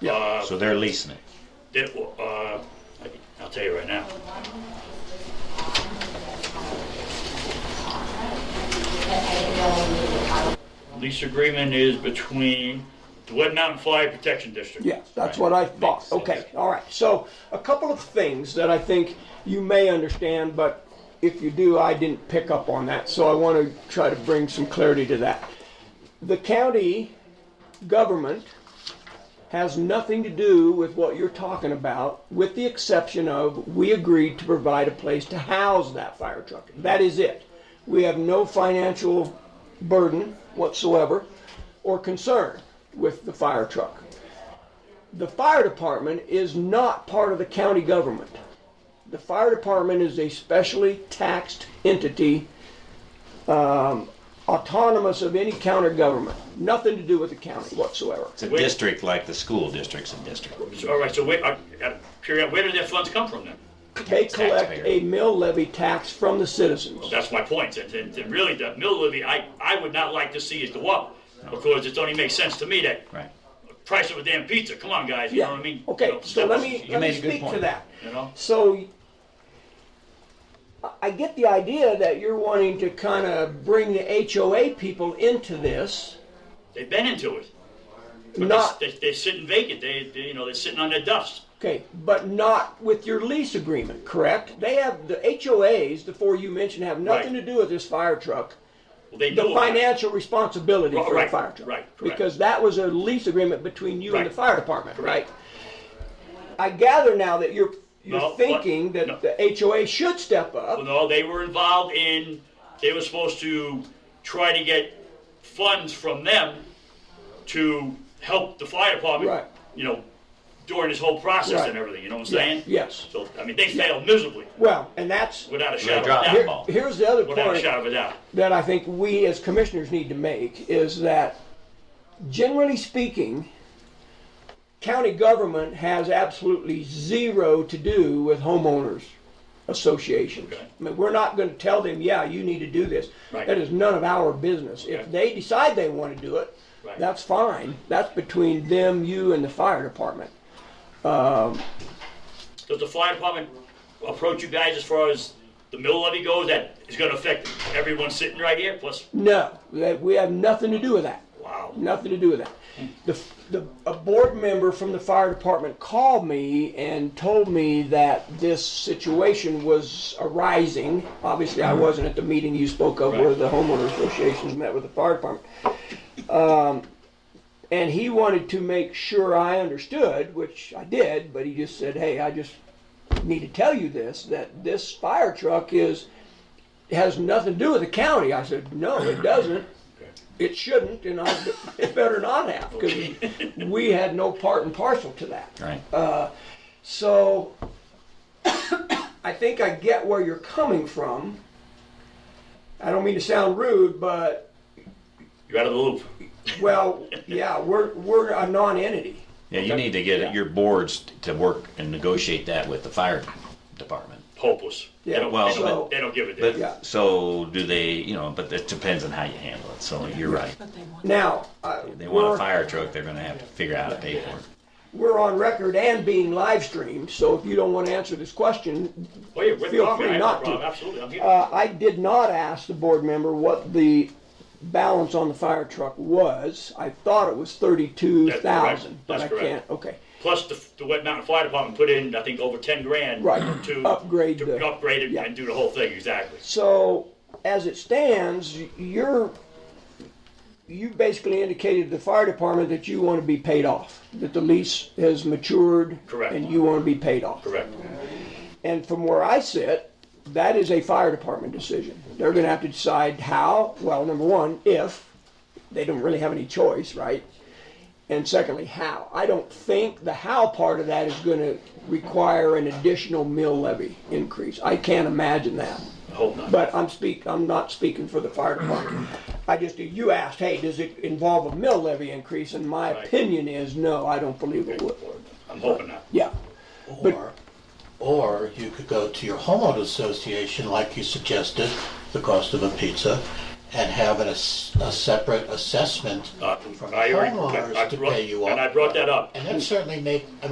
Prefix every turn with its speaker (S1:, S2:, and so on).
S1: Yeah.
S2: So they're leasing it.
S1: It, wa- uh, I- I'll tell you right now. Lease agreement is between the Wet Mountain Fly Protection District.
S3: Yes, that's what I thought.
S2: sense.
S3: Okay, all right. So a couple of things that I think you may understand, but if you do, I didn't pick up on that. So I want to try to bring some clarity to that. The county government has nothing to do with what you're talking about, with the exception of we agreed to provide a place to house that fire truck. That is it. We have no financial burden whatsoever or concern with the fire truck the fire department is not part of the county government. The fire department is a specially taxed entity, um, autonomous of any county government, nothing to do with the county whatsoever.
S2: It's a
S1: Wait.
S2: district like the school district's a district.
S1: So, All right, so wait, I gotta figure out, where did their funds come from then?
S3: They collect
S2: Taxpayer.
S3: a mill levy tax from the citizens.
S1: That's my point, and, and and really, the mill levy, I, I would not like to see it go up, because it only makes sense to me that
S2: Right.
S1: price of a damn pizza, come on, guys, you know what I mean? You
S3: Okay,
S1: know,
S3: so let me, let me
S2: made a good
S3: speak to
S2: point.
S3: that.
S1: You know?
S3: So I- I get the idea that you're wanting to kind of bring the HOA people into this,
S1: They've been into it. But they-
S3: not.
S1: They, they're sitting vacant, they, they, you know, they're sitting on their dust.
S3: Okay, but not with your lease agreement, correct? They have, the HOAs, the four you mentioned, have nothing to
S1: Right.
S3: do with this fire truck.
S1: Well, they
S3: The
S1: knew about it.
S3: financial responsibility
S1: Right,
S3: for the
S1: right,
S3: fire truck.
S1: right, correct.
S3: Because that was a lease agreement between you and the
S1: Right.
S3: fire department, right?
S1: Correct.
S3: I gather now that you're,
S1: No,
S3: you're
S1: what-
S3: thinking
S1: no.
S3: that the HOA should step
S1: Well,
S3: up.
S1: no, they were involved in, they were supposed to try to get funds from them to help the fire department,
S3: Right.
S1: you know, during this whole process
S3: Right.
S1: and everything, you know what I'm
S3: Yeah,
S1: saying?
S3: yes.
S1: So, I mean, they failed miserably,
S3: Well, and that's,
S1: without a shadow
S2: dropped
S1: of a
S2: the
S3: here-
S2: ball.
S1: doubt.
S3: here's the other
S1: Without a
S3: point.
S1: shadow of a doubt.
S3: that I think we as commissioners need to make is that, generally speaking, county government has absolutely zero to do with homeowners associations.
S1: Okay.
S3: I mean, we're not gonna tell them, yeah, you need to do this.
S1: Right.
S3: That is none of our business. If
S1: Okay.
S3: they decide they wanna do it,
S1: Right.
S3: that's fine. That's between them, you, and the fire department.
S1: Does the fire department approach you guys as far as the mill levy goes, that is gonna affect everyone sitting right here, plus,
S3: No, that, we have nothing to do with that.
S1: wow.
S3: nothing to do with that. The, the, a board member from the fire department called me and told me that this situation was arising. Obviously, I wasn't at the meeting you spoke of where
S1: Right.
S3: the homeowner associations met with the fire department. Um, and he wanted to make sure I understood, which I did, but he just said, hey, I just need to tell you this, that this fire truck is, has nothing to do with the county. I said, no, it doesn't. It shouldn't, and I, it better not have, because we had no part and parcel to that.
S2: Right.
S3: So I think I get where you're coming from. I don't mean to sound rude, but,
S1: You're out of the loop.
S3: well, yeah, we're, we're a non-entity.
S2: Yeah, you need to get your boards to work and negotiate that with the fire department.
S1: Hopeless. They
S3: Yeah,
S1: don't,
S2: well-
S1: they
S3: so-
S1: don't, they don't give a damn.
S3: Yeah.
S2: But, so do they, you know, but it depends on how you handle it. So you're right.
S3: Now, uh,
S2: They want a
S3: we're,
S2: fire truck, they're gonna have to figure out how to pay for it.
S3: we're on record and being live streamed, so if you don't want to answer this question,
S1: Well, yeah, with
S3: Feel
S1: coffee,
S3: free
S1: I have no
S3: not to.
S1: problem. Absolutely, I'm here.
S3: Uh, I did not ask the board member what the balance on the fire truck was. I thought it was thirty-two thousand, but
S1: That's
S3: I
S1: correct.
S3: can't, okay.
S1: Plus, the, the Wet Mountain Fire Department put in, I think, over ten grand.
S3: Right,
S1: To.
S3: upgrade
S1: To
S3: the-
S1: upgrade it
S3: yeah.
S1: and do the whole thing, exactly.
S3: So, as it stands, you're, you basically indicated to the fire department that you want to be paid off, that the lease has matured.
S1: Correct.
S3: And you want to be paid off.
S1: Correct.
S3: And from where I sit, that is a fire department decision. They're gonna have to decide how, well, number one, if, they don't really have any choice, right? And secondly, how. I don't think the how part of that is gonna require an additional mill levy increase. I can't imagine that.
S1: I hope not.
S3: But I'm speak, I'm not speaking for the fire department. I just, you asked, hey, does it involve a mill levy increase? And my
S1: Right.
S3: opinion is, no, I don't believe it would.
S1: I'm hoping not.
S3: Yeah. But-
S4: Or, or you could go to your homeowner association, like you suggested, the cost of a pizza, and have an ass- a separate assessment
S1: Uh,
S4: from the
S1: I already- I- I
S4: homeowners to
S1: brought-
S4: pay you off.
S1: And I brought that up.
S4: And that certainly make, I mean,